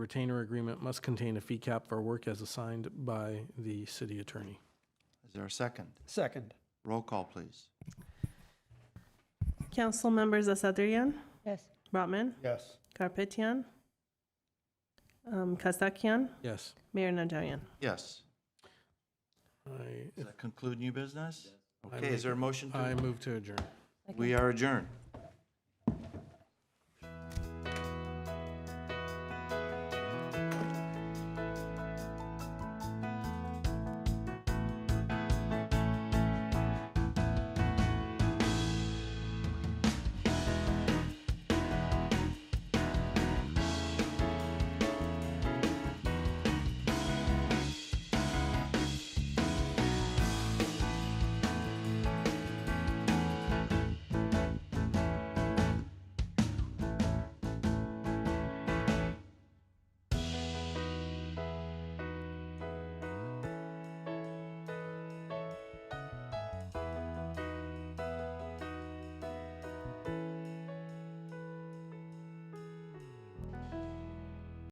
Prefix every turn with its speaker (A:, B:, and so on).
A: retainer agreement must contain a fee cap for work as assigned by the city attorney.
B: Is there a second?
C: Second.
B: Roll call, please.
D: Council members Asadrian,
E: Yes.
D: Brotman,
C: Yes.
D: Garpetian, um, Kasakian,
A: Yes.
D: Mayor Najarian.
B: Yes.
A: I,
B: Does that conclude new business?
A: I
B: Okay, is there a motion
A: I
B: to?
A: move to adjourn.
B: We are adjourned.